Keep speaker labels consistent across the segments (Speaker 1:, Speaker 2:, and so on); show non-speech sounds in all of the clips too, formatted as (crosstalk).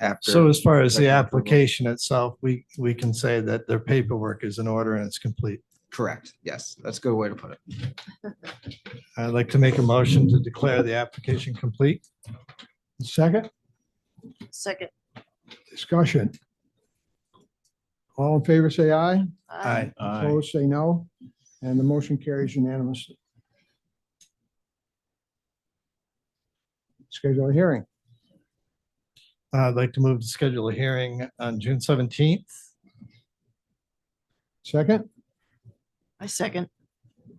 Speaker 1: after.
Speaker 2: So as far as the
Speaker 1: Second approval.
Speaker 2: application itself, we, we can say that their paperwork is in order and it's complete.
Speaker 1: Correct. Yes, that's a good way to put it.
Speaker 2: I'd like to make a motion to declare the application complete.
Speaker 3: Second,
Speaker 4: Second.
Speaker 3: discussion. All in favor, say aye.
Speaker 4: Aye.
Speaker 3: Opposed, say no. And the motion carries unanimously. Schedule a hearing.
Speaker 2: I'd like to move to schedule a hearing on June seventeenth.
Speaker 3: Second,
Speaker 4: I second.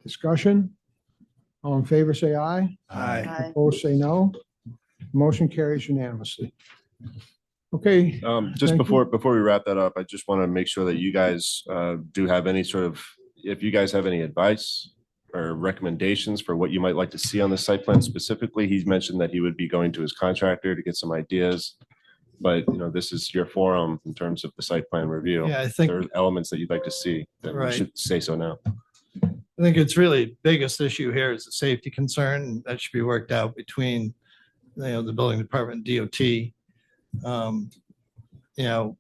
Speaker 3: discussion. All in favor, say aye.
Speaker 2: Aye.
Speaker 4: Aye.
Speaker 3: Opposed, say no. Motion carries unanimously. Okay,
Speaker 5: Um,
Speaker 3: Thank
Speaker 5: just
Speaker 3: you.
Speaker 5: before, before we wrap that up, I just want to make sure that you guys, uh, do have any sort of, if you guys have any advice or recommendations for what you might like to see on the site plan specifically, he's mentioned that he would be going to his contractor to get some ideas. But, you know, this is your forum in terms of the site plan review.
Speaker 2: Yeah, I
Speaker 5: There are
Speaker 2: think,
Speaker 5: elements that you'd like to see that we
Speaker 2: Right.
Speaker 5: should say so now.
Speaker 2: I think it's really biggest issue here is the safety concern and that should be worked out between, you know, the building department, and DOT. Um, You know,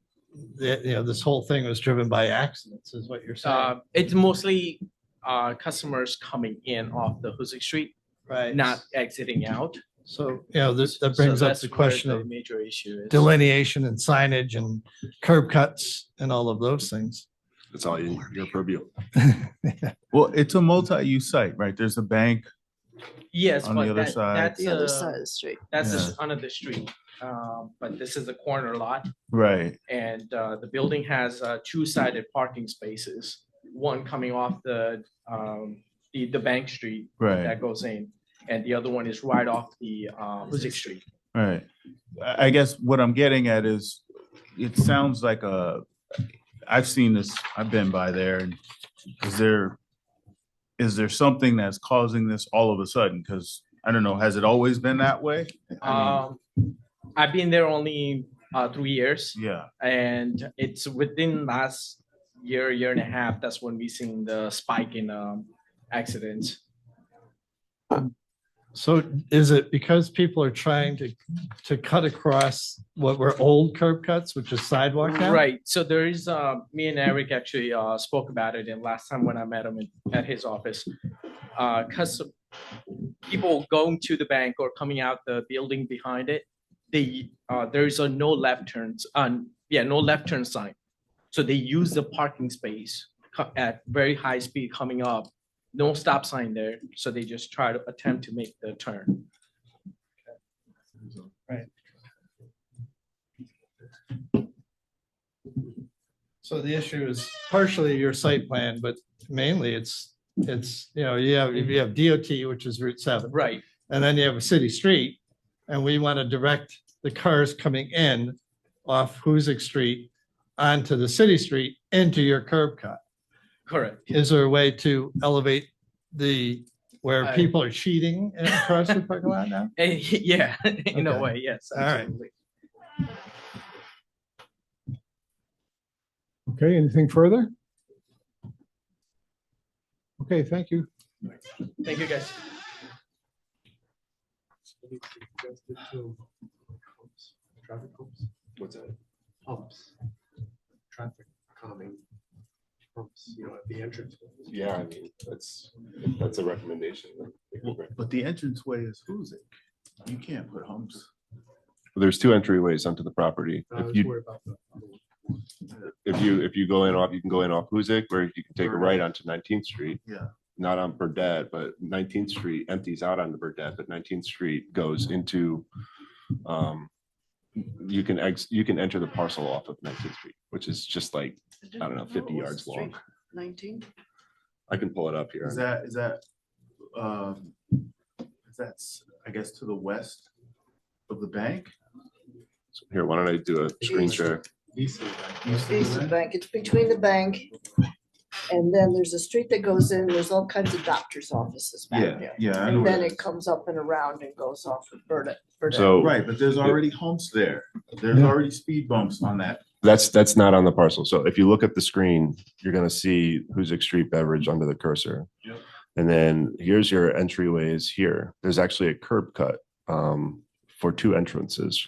Speaker 2: the, you know, this whole thing was driven by accidents is what you're saying,
Speaker 6: Uh, it's mostly uh, customers coming in off the Hoosick Street,
Speaker 2: right?
Speaker 6: not exiting out.
Speaker 2: So, you know, this, that
Speaker 6: So
Speaker 2: brings up
Speaker 6: that's
Speaker 2: the
Speaker 6: where
Speaker 2: question
Speaker 6: the
Speaker 2: of
Speaker 6: Major issue is.
Speaker 2: delineation and signage and curb cuts and all of those things.
Speaker 5: That's all you- your purview.
Speaker 7: Well, it's a multi-use site, right? There's a bank.
Speaker 6: Yes,
Speaker 7: on the
Speaker 6: but
Speaker 7: other
Speaker 6: that,
Speaker 7: side.
Speaker 6: that's
Speaker 4: The other side
Speaker 6: a,
Speaker 4: of the street.
Speaker 6: that's
Speaker 7: Yeah.
Speaker 6: just another street. Um, But this is the corner lot
Speaker 7: Right.
Speaker 6: and uh, the building has uh, two-sided parking spaces. One coming off the, um, the, the Bank Street
Speaker 7: Right.
Speaker 6: that goes in and the other one is right off the uh, Hoosick Street.
Speaker 7: Right. I, I guess what I'm getting at is, it sounds like a, I've seen this, I've been by there. and Is there, is there something that's causing this all of a sudden? Because I don't know, has it always been that way? I
Speaker 6: Um, I've been there only uh, three years.
Speaker 7: mean, Yeah,
Speaker 6: and it's within last year, year and a half, that's when we seen the spike in um accidents.
Speaker 2: So is it because people are trying to, to cut across what were old curb cuts, which is sidewalk now?
Speaker 6: Right, so there is, uh, me and Eric actually uh spoke about it and last time when I met him in- at his office. Uh, cause of people going to the bank or coming out the building behind it, they, uh, there is a no left turns, on, yeah, no left turn sign. So they use the parking space co- at very high speed coming up, no stop sign there, so they just try to attempt to make the turn.
Speaker 2: So the issue is partially your site plan, but mainly it's, it's, you know, you have, you have DOT, which is Route seven.
Speaker 6: Right,
Speaker 2: And then you have a city street, and we want to direct the cars coming in off Hoosick Street onto the city street into your curb cut.
Speaker 6: correct. (laughs)
Speaker 2: Is there a way to elevate the, where
Speaker 6: I-
Speaker 2: people are cheating across the parking lot now?
Speaker 6: Eh, Yeah, (laughs) in a
Speaker 2: Okay.
Speaker 6: way, yes.
Speaker 2: All right.
Speaker 6: absolutely.
Speaker 3: okay, anything further? Okay, thank you.
Speaker 6: Thank you, guys.
Speaker 8: Traffic pumps? What's that? Pumps. Traffic calming. Pumps, you know, at the entrance.
Speaker 5: Yeah, I mean, that's, that's a recommendation.
Speaker 7: but the entranceway is who's it? You can't put humps.
Speaker 5: There's two entryways onto the property.
Speaker 8: I
Speaker 5: If
Speaker 8: was
Speaker 5: you,
Speaker 8: worried about the.
Speaker 5: if you, if you go in off, you can go in off Huzik, or you can take a right onto Nineteenth Street.
Speaker 7: Yeah.
Speaker 5: Not on Burdette, but Nineteenth Street empties out onto Burdette, but Nineteenth Street goes into, um, you can ex, you can enter the parcel off of Nineteenth Street, which is just like, I don't know, fifty
Speaker 4: What was
Speaker 5: yards
Speaker 4: the street?
Speaker 5: long.
Speaker 4: Nineteen?
Speaker 5: I can pull it up
Speaker 7: Is
Speaker 5: here.
Speaker 7: that, is that, um, is that's, I guess, to the west of the bank?
Speaker 5: Here, why don't I do a screen share?
Speaker 4: East of the bank. It's between the bank. And then there's a street that goes in, there's all kinds of doctor's offices back there.
Speaker 7: yeah. I know
Speaker 4: And
Speaker 7: where
Speaker 4: then
Speaker 7: that
Speaker 4: it
Speaker 7: is. Oh.
Speaker 4: comes up and around and goes off of Burnett.
Speaker 5: So
Speaker 7: Right, but there's already humps there. There's
Speaker 3: Yeah.
Speaker 7: already speed bumps on that.
Speaker 5: that's, that's not on the parcel. So if you look at the screen, you're gonna see Huzik Street Beverage under the cursor.
Speaker 7: Yep.
Speaker 5: And then here's your entryways here. There's actually a curb cut um, for two entrances